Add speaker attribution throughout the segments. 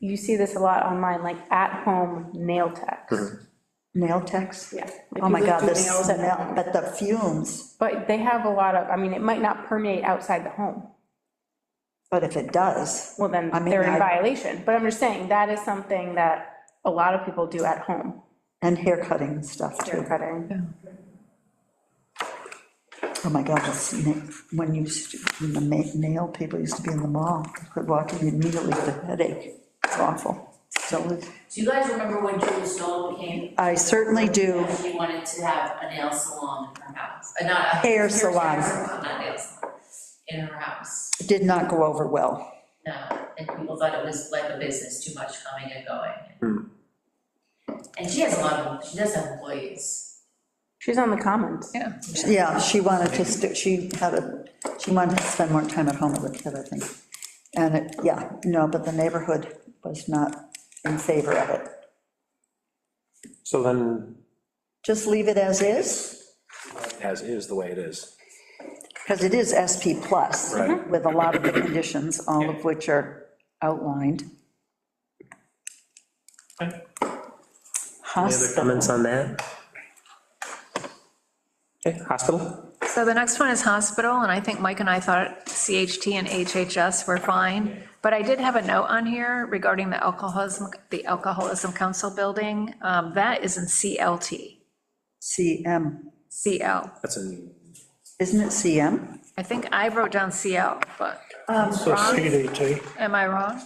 Speaker 1: you see this a lot online, like at-home nail techs.
Speaker 2: Nail techs?
Speaker 1: Yeah.
Speaker 2: Oh my God,
Speaker 1: If you
Speaker 2: the
Speaker 1: lift your nails and-
Speaker 2: smell, but the fumes,
Speaker 1: But they have a lot of, I mean, it might not permeate outside the home.
Speaker 2: but if it does,
Speaker 1: Well, then
Speaker 2: I mean,
Speaker 1: they're in
Speaker 2: I-
Speaker 1: violation. But I'm just saying, that is something that a lot of people do at home,
Speaker 2: and hair cutting and stuff
Speaker 1: hair
Speaker 2: too.
Speaker 1: cutting.
Speaker 2: Oh my God, the sna- when you, used to- when the ma- nail people used to be in the mall, you could walk in immediately with a headache. It's awful. So
Speaker 3: Do you guys remember when Julie Stoll came?
Speaker 2: I certainly do.
Speaker 3: And She wanted to have a nail salon in her house, uh, not a.
Speaker 2: Hair salon.
Speaker 3: Not nail salon, in her house,
Speaker 2: It did not go over well.
Speaker 3: no, and people thought it was like a business, too much coming and going. And she has a lot of, she does have employees,
Speaker 1: She's on the comments.
Speaker 2: Yeah, she wanted to, st- she had a, she wanted to spend more time at home with the kid, I think. And it, yeah, no, but the neighborhood was not in favor of it.
Speaker 4: So then,
Speaker 2: Just leave it as is,
Speaker 4: as is the way it is.
Speaker 2: because it is SP plus.
Speaker 4: Right.
Speaker 2: With a lot of the conditions, all of which are outlined.
Speaker 4: Any other
Speaker 2: Hospital,
Speaker 4: comments on that? Okay, hospital?
Speaker 5: So the next one is hospital, and I think Mike and I thought CHT and HHS were fine. But I did have a note on here regarding the alcoholism, the Alcoholism Council building. Um, That is in CLT,
Speaker 2: CM,
Speaker 5: CL.
Speaker 4: That's in.
Speaker 2: isn't it CM?
Speaker 5: I think I wrote down CL, but um,
Speaker 6: So CDT,
Speaker 5: am I wrong?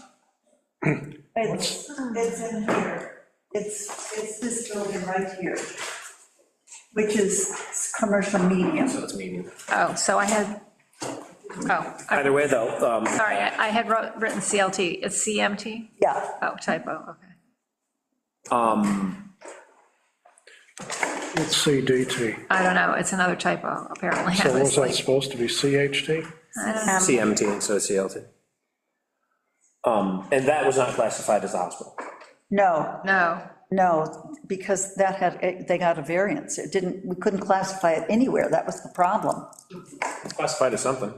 Speaker 7: It's, it's in here, it's, it's this building right here,
Speaker 2: Which is commercial medium.
Speaker 4: So it's medium.
Speaker 5: Oh, so I had, oh, I-
Speaker 4: Either way, though, um,
Speaker 5: sorry, I I had wrote- written CLT. It's CMT?
Speaker 2: Yeah,
Speaker 5: Oh, typo, okay.
Speaker 6: it's CDT.
Speaker 5: I don't know, it's another typo, apparently. I
Speaker 6: So
Speaker 5: was
Speaker 6: was that
Speaker 5: like,
Speaker 6: supposed to be CHT?
Speaker 4: CMT, so it's CLT. Um, and that was not classified as a hospital.
Speaker 2: no,
Speaker 5: No,
Speaker 2: No, because that had, it- they got a variance. It didn't, we couldn't classify it anywhere. That was the problem.
Speaker 4: It's classified as something.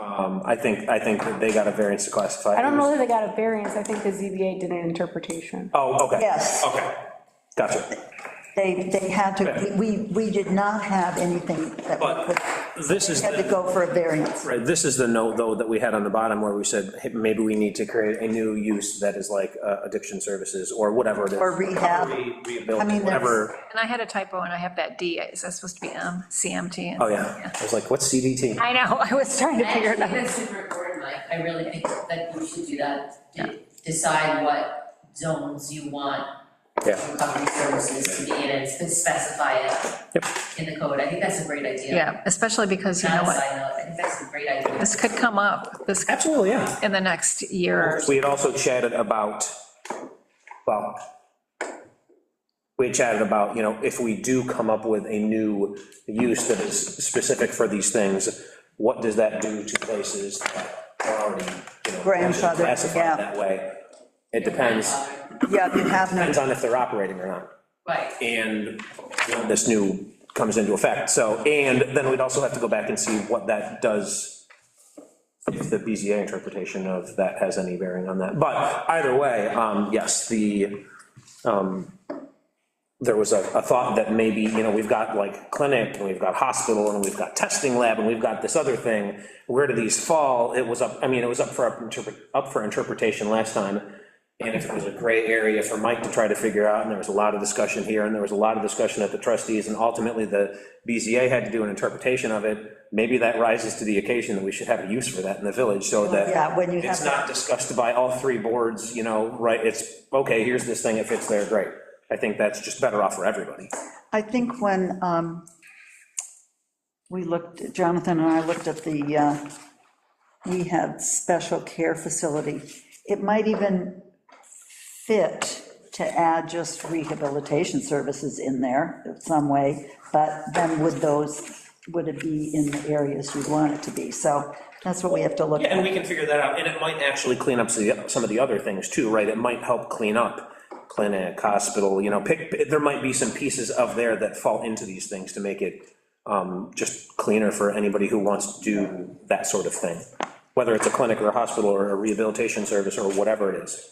Speaker 4: Um, I think, I think that they got a variance to classify. it.
Speaker 1: I don't know that they got a variance, I think the ZBA did an interpretation.
Speaker 4: Oh, okay.
Speaker 2: Yes.
Speaker 4: Okay, gotcha.
Speaker 2: They, they had to, we, we did not have anything that we
Speaker 4: But
Speaker 2: could,
Speaker 4: this is.
Speaker 2: had
Speaker 4: the-
Speaker 2: to go for a variance.
Speaker 4: Right, this is the note, though, that we had on the bottom where we said, hey, maybe we need to create a new use that is like uh, addiction services or whatever it is.
Speaker 2: Or rehab. I
Speaker 4: Re-
Speaker 2: mean,
Speaker 4: Rehabilitation,
Speaker 2: that's-
Speaker 4: whatever,
Speaker 5: and I had a typo, and I have that D. Is that supposed to be M, CMT?
Speaker 4: oh, yeah. I was like, what's CDT?
Speaker 5: I know, I was trying to
Speaker 3: I
Speaker 5: figure it
Speaker 3: actually think
Speaker 5: out.
Speaker 3: that's super important, Mike, I really think that you should do that, to decide what zones you want
Speaker 4: Yeah.
Speaker 3: recovery services to be in, and specify it
Speaker 4: Yep.
Speaker 3: in the code, I think that's a great idea.
Speaker 5: Yeah, especially because, you know
Speaker 3: Not a
Speaker 5: what,
Speaker 3: side note, I think that's a great idea.
Speaker 5: this could come up, this,
Speaker 4: Absolutely, yeah.
Speaker 5: in the next year. or so.
Speaker 4: We had also chatted about, well, we had chatted about, you know, if we do come up with a new use that is specific for these things, what does that do to places that are already, you know,
Speaker 2: Grandfathered, yeah.
Speaker 4: classified that way? It depends,
Speaker 2: Yeah, you have no,
Speaker 4: depends on if they're operating or not.
Speaker 3: Um, Right,
Speaker 4: and when this new comes into effect, so, and then we'd also have to go back and see what that does, if the BZA interpretation of that has any bearing on that, but either way, um, yes, the, um, there was a, a thought that maybe, you know, we've got like clinic, and we've got hospital, and we've got testing lab, and we've got this other thing, where do these fall, it was up, I mean, it was up for, interpret- up for interpretation last time, and if it was a gray area for Mike to try to figure out, and there was a lot of discussion here, and there was a lot of discussion at the trustees, and ultimately the BZA had to do an interpretation of it, maybe that rises to the occasion that we should have a use for that in the village, so that.
Speaker 2: yeah, when you
Speaker 4: It's
Speaker 2: have-
Speaker 4: not discussed by all three boards, you know, right, it's, okay, here's this thing, it fits there, great. I think that's just better off for everybody.
Speaker 2: I think when um, we looked, Jonathan and I looked at the, uh, we had special care facility. It might even fit to add just rehabilitation services in there in some way, but then would those, would it be in the areas you'd want it to be? So that's what we have to look
Speaker 4: Yeah, and
Speaker 2: at.
Speaker 4: we can figure that out, and it might actually clean up some of the- some of the other things too, right? It might help clean up clinic, hospital, you know, pick, there might be some pieces of there that fall into these things to make it um, just cleaner for anybody who wants to do that sort of thing, whether it's a clinic or a hospital or a rehabilitation service or whatever it is.